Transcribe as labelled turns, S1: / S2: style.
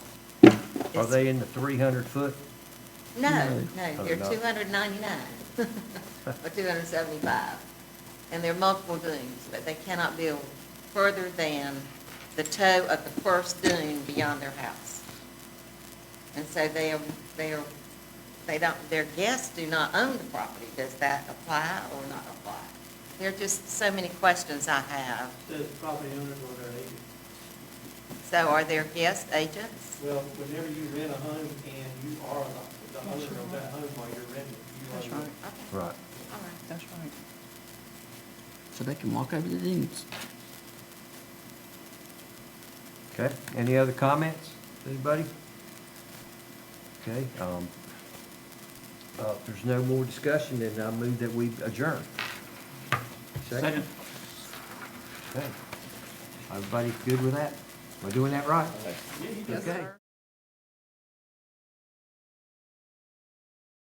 S1: Are
S2: It's-
S1: they in the three hundred foot?
S2: No, no,
S1: Oh,
S2: they're
S1: they're not?
S2: two hundred and ninety-nine, or two hundred and seventy-five. And there are multiple dunes, but they cannot build further than the toe of the first dune beyond their house. And so they are, they are, they don't, their guests do not own the property. Does that apply or not apply? There are just so many questions I have.
S3: The property owners or their agent.
S2: So are there guest agents?
S3: Well, whenever you rent a home and you are the- the owner of that home while you're renting, you are.
S4: That's
S3: the-
S4: right.
S2: Okay,
S1: Right.
S2: all right.
S4: That's right. So they can walk over the dunes.
S1: Okay, any other comments, anybody? Okay, um, uh, if there's no more discussion, then I move that we adjourn. Second. Okay. Everybody good with that? Am I doing that right?
S3: Yeah, you do.
S1: Okay.